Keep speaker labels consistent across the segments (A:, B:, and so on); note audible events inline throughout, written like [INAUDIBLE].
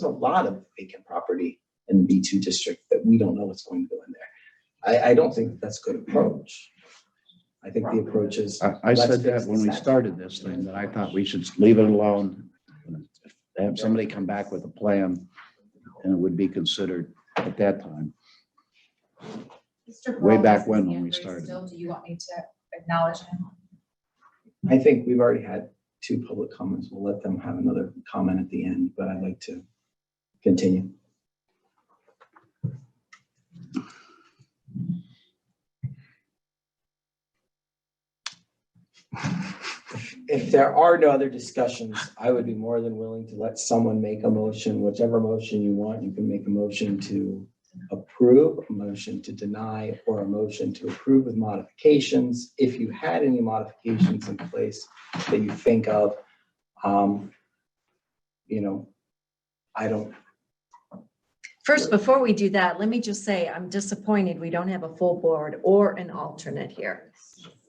A: there's a lot of vacant property in the B2 district that we don't know what's going to go in there. I, I don't think that's a good approach. I think the approach is,
B: I, I
A: Let's
B: said
A: fix
B: that when we
A: this.
B: started this thing, that I thought we should leave it alone. Have somebody come back with a plan and it would be considered at that time.
C: Mr.
B: Way
C: Peralta's
B: back when, when we
C: hand raised
B: started.
C: Still, do you want me to acknowledge him?
A: I think we've already had two public comments. We'll let them have another comment at the end, but I'd like to continue. If there are no other discussions, I would be more than willing to let someone make a motion, whichever motion you want. You can make a motion to approve, a motion to deny, or a motion to approve with modifications. If you had any modifications in place that you think of, um, you know, I don't,
D: First, before we do that, let me just say, I'm disappointed we don't have a full board or an alternate here.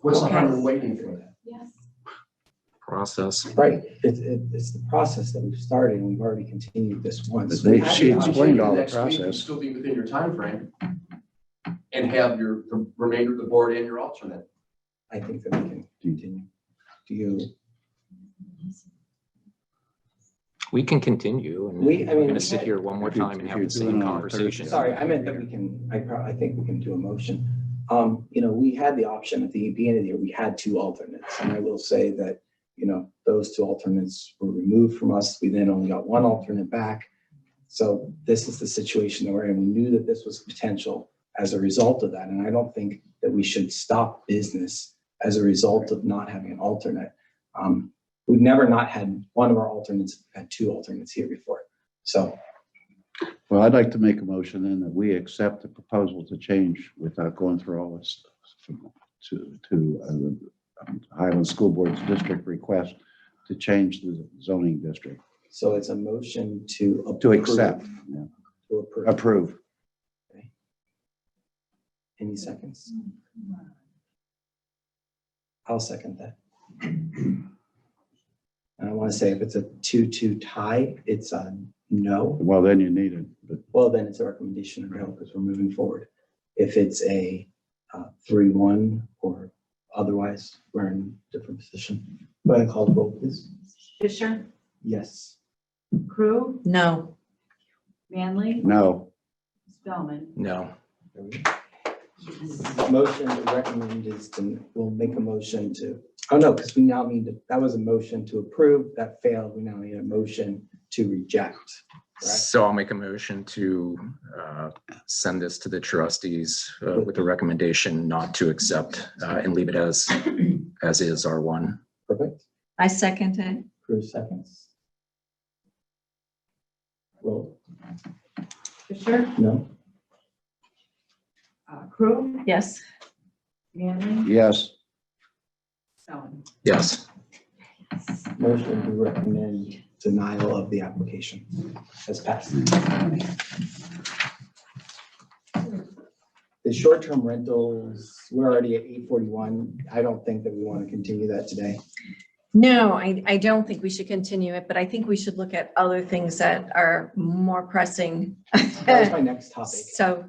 E: What's the
D: Okay.
E: harm in waiting for that?
C: Yes.
F: process.
A: right, it's, it- it's the process that we've started and we've already continued this once.
B: They-
A: We had
B: she
A: the option-
B: explained all the
E: Next week, you'd
B: process.
E: Still be within your time frame, and have your, the remainder of the board and your alternate.
A: I think that we can continue. Do you,
F: We can continue and
A: We- I
F: we're
A: mean,
F: gonna sit here one more
B: if you-
F: time
B: if
F: and have
B: you're
F: the same
B: doing all the
F: conversation.
A: sorry, I meant that we can, I probably, I think we can do a motion. Um, you know, we had the option at the beginning of the year, we had two alternates, and I will say that, you know, those two alternates were removed from us. We then only got one alternate back. So this is the situation that we're in. We knew that this was potential as a result of that, and I don't think that we should stop business as a result of not having an alternate. Um, we've never not had one of our alternates, had two alternates here before. So
B: Well, I'd like to make a motion then that we accept the proposal to change without going through all this to, to uh, the um, Highland School Board's district request to change the zoning district,
A: So it's a motion to.
B: to
A: approve-
B: accept, yeah,
A: To approve.
B: approve.
A: Any seconds? I'll second that. And I want to say if it's a two-two tie, it's a no.
B: Well, then you need it, but
A: Well, then it's a recommendation of no because we're moving forward. If it's a uh, three-one or otherwise, we're in a different position. Go ahead and call the roll, please.
G: Fisher,
A: Yes.
G: Crew,
D: No,
G: Manley,
B: no,
G: Spellman.
F: No,
A: There we go. Motion to recommend is to, we'll make a motion to, oh no, because we now need, to- that was a motion to approve, that failed, we now need a motion to reject. correct?
F: so I'll make a motion to uh, send this to the trustees uh, with a recommendation not to accept uh, and leave it as, as is R1.
A: Perfect,
D: I second it.
A: Cruz seconds. Roll,
G: Fisher,
A: no,
G: uh, Crew,
D: Yes,
G: Manley,
B: yes,
G: Spellman.
F: Yes,
A: motion to recommend denial of the application has passed. The short-term rentals, we're already at eight forty-one, I don't think that we want to continue that today.
D: no, I, I don't think we should continue it, but I think we should look at other things that are more pressing.
A: That was my next topic.
D: So,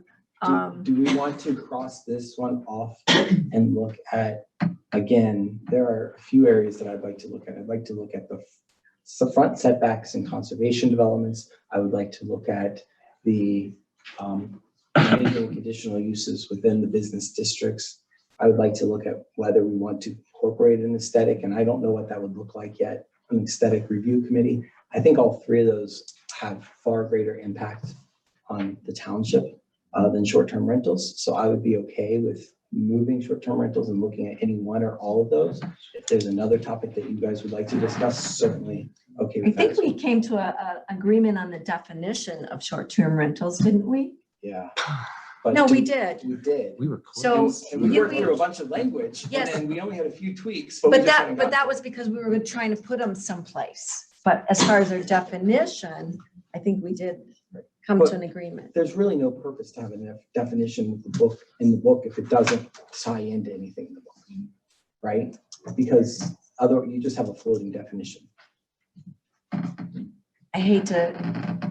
A: Do,
D: um,
A: do we want to cross this one off and look at, again, there are a few areas that I'd like to look at. I'd like to look at the, f- the front setbacks and conservation developments. I would like to look at the, um, major conditional uses within the business districts. I would like to look at whether we want to incorporate an aesthetic, and I don't know what that would look like yet, an aesthetic review committee. I think all three of those have far greater impact on the township uh, than short-term rentals. So I would be okay with moving short-term rentals and looking at any one or all of those. If there's another topic that you guys would like to discuss, certainly, okay.
D: I
A: with that
D: think
A: as well.
D: we came to a, a agreement on the definition of short-term rentals, didn't we?
A: Yeah. But
D: [SIGHS] No, we
A: do-
D: did.
A: We did.
F: we were. close.
D: So-
A: And and we
D: you-
A: worked
D: we-
A: through a bunch of language and
D: Yes.
A: then we only had a few tweaks. we
D: But
A: just haven't
D: that, but
A: gotten
D: that was because we were trying to put them someplace. But as far as their definition, I think we did come
A: But-
D: to an agreement.
A: There's really no purpose to have a def- definition of the book, in the book, if it doesn't tie into anything in the book. Right? Because other, you just have a floating definition.
D: I hate to